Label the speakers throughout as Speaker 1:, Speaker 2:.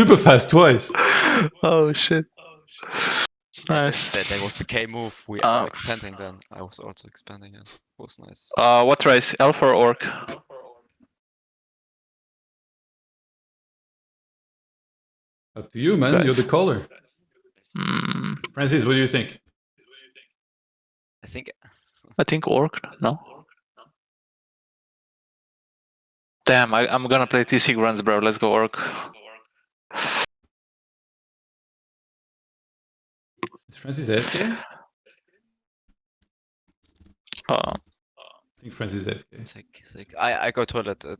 Speaker 1: Super fast twice.
Speaker 2: Oh shit.
Speaker 3: I
Speaker 2: Nice.
Speaker 3: just said there was the K move. We
Speaker 2: Ah.
Speaker 3: are expanding then. I was also expanding it. was nice.
Speaker 2: Uh, what race? Alpha or Orc?
Speaker 1: Up to you, man. You're
Speaker 2: Nice.
Speaker 1: the caller.
Speaker 2: Hmm,
Speaker 1: Francis, what do you think?
Speaker 3: I think
Speaker 2: I think Orc. No. Damn, I, I'm gonna play TC Grunts, bro. Let's go Orc.
Speaker 1: Is Francis AFK? I
Speaker 2: Uh,
Speaker 1: think Francis is AFK.
Speaker 3: sick, sick. I I go toilet. Uh,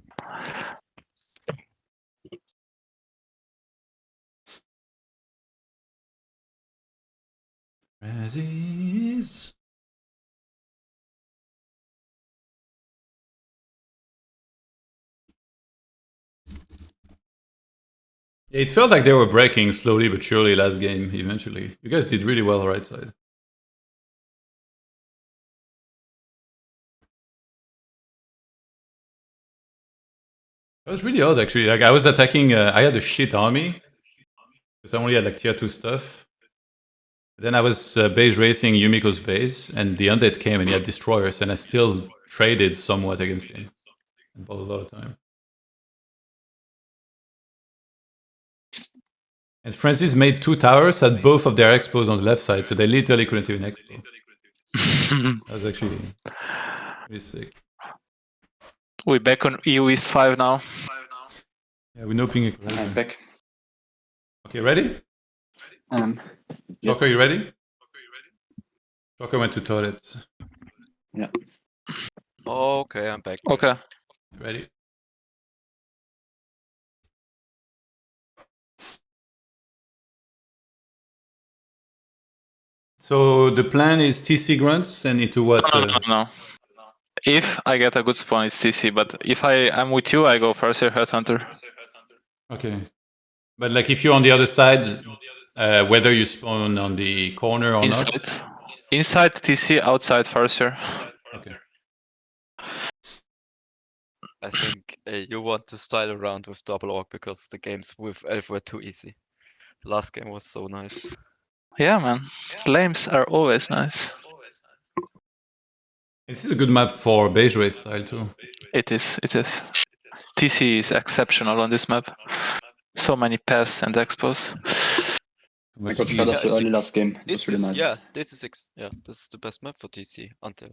Speaker 1: Francis. Yeah, it felt like they were breaking slowly but surely last game eventually. You guys did really well right side. That was really odd actually. Like I was attacking uh, I had a shit army. Because I only had like tier two stuff. Then I was uh, base racing Yumiko's base, and the undead came and he had destroyers, and I still traded somewhat against him. And bought a lot of time. And Francis made two towers at both of their expos on the left side, so they literally couldn't even expo. That was actually really sick.
Speaker 2: we back on EU East 5 now.
Speaker 1: Yeah, we know ping. it.
Speaker 4: I'm back.
Speaker 1: Okay, ready?
Speaker 4: Um, Yes.
Speaker 1: Joker, you ready? Joker went to toilet.
Speaker 3: okay, I'm back.
Speaker 2: Okay.
Speaker 1: Ready? So the plan is TC grunts and into what?
Speaker 2: No, no,
Speaker 1: Uh,
Speaker 2: no, no. If I get a good spawn, it's TC. But if I i am with you, I go first here, Headhunter.
Speaker 1: okay. But like if you're on the other side, uh, whether you spawn on the corner or
Speaker 2: Inside. Inside TC, outside first here.
Speaker 1: not. Okay.
Speaker 3: I think uh, you want to style around with double orc because the games with elf were too easy. Last game was so nice.
Speaker 2: Yeah, man. Lames are always nice.
Speaker 1: This is a good map for base race style too.
Speaker 2: It is. It is. TC is exceptional on this map. So many paths and expos.
Speaker 4: I got
Speaker 3: Yeah,
Speaker 4: shot
Speaker 3: I
Speaker 4: off so
Speaker 3: think
Speaker 4: early last game. It was
Speaker 3: This
Speaker 4: really
Speaker 3: is
Speaker 4: nice.
Speaker 3: yeah. This is ex- yeah. This is the best map for TC until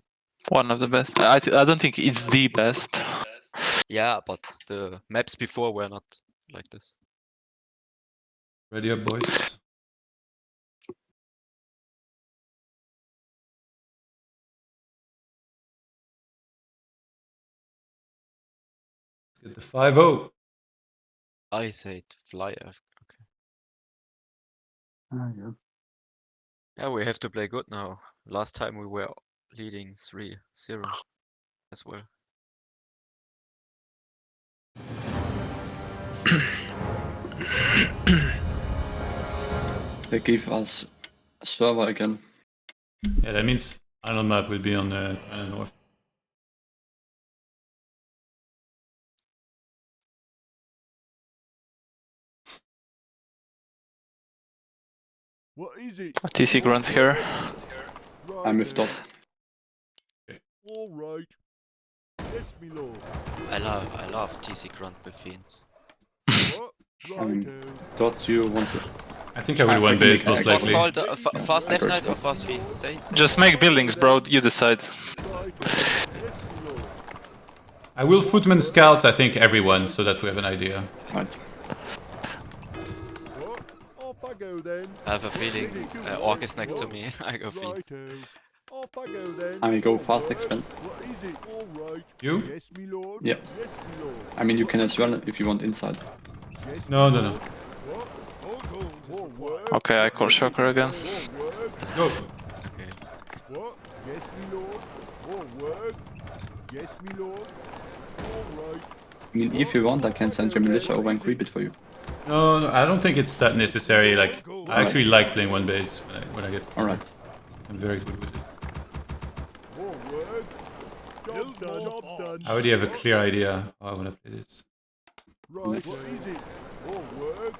Speaker 2: One of the best. I, I don't think it's the best.
Speaker 3: yeah. But the maps before were not like this.
Speaker 1: Ready up, boys. Get the oh. 5 0.
Speaker 3: I said fly. F- Okay.
Speaker 4: Ah, yeah.
Speaker 3: Yeah, we have to play good now. Last time we were leading 3-0 as well.
Speaker 4: They gave us a server again.
Speaker 1: Yeah, that means island map will be on the island north.
Speaker 5: What is it?
Speaker 2: TC Grunt here.
Speaker 5: Right
Speaker 4: I'm with
Speaker 5: then.
Speaker 4: Dot.
Speaker 5: All right. Yes, me lord.
Speaker 3: I love I love TC Grunt with fiends.
Speaker 5: What?
Speaker 4: Um,
Speaker 5: Righto.
Speaker 4: Dot, you want to...
Speaker 1: I think I will
Speaker 4: I
Speaker 1: one
Speaker 4: can
Speaker 1: base,
Speaker 4: make
Speaker 1: most
Speaker 4: that.
Speaker 3: What's
Speaker 1: likely.
Speaker 3: called uh, fa- fast
Speaker 4: I
Speaker 3: left
Speaker 4: got
Speaker 3: knight or fast fiends? Say, say.
Speaker 2: Just make buildings, bro. You decide.
Speaker 5: Righto. Yes, me lord.
Speaker 1: I will footman scout, I think, everyone, so that we have an idea.
Speaker 4: Right.
Speaker 5: What? Off I go then.
Speaker 3: I have a feeling uh, Orc is next to me. I go fiends.
Speaker 5: Righto. Off I go then.
Speaker 4: I go
Speaker 5: All
Speaker 4: fast
Speaker 5: right.
Speaker 4: expand.
Speaker 5: What is it? All right.
Speaker 1: You?
Speaker 5: Yes, me lord.
Speaker 4: Yeah.
Speaker 5: Yes, me lord.
Speaker 4: I mean, you can as well if you want inside.
Speaker 5: Yes,
Speaker 1: No,
Speaker 5: me
Speaker 1: no, no.
Speaker 5: lord. What? All goals. All work.
Speaker 2: Okay, I call Shocker again.
Speaker 5: All work.
Speaker 1: Let's go.
Speaker 5: What? Yes, me lord. All work. Yes, me lord. All right.
Speaker 4: I mean, if you want, I can send your militia over and creep it for you.
Speaker 1: No, no, I don't think it's that necessary. Like, I actually like playing one base when I, when I get.
Speaker 4: Alright.
Speaker 1: I'm very good with it.
Speaker 5: More work. Job done. Job done.
Speaker 1: I already have a clear idea how I want to play this.
Speaker 5: Right. What is it? More work.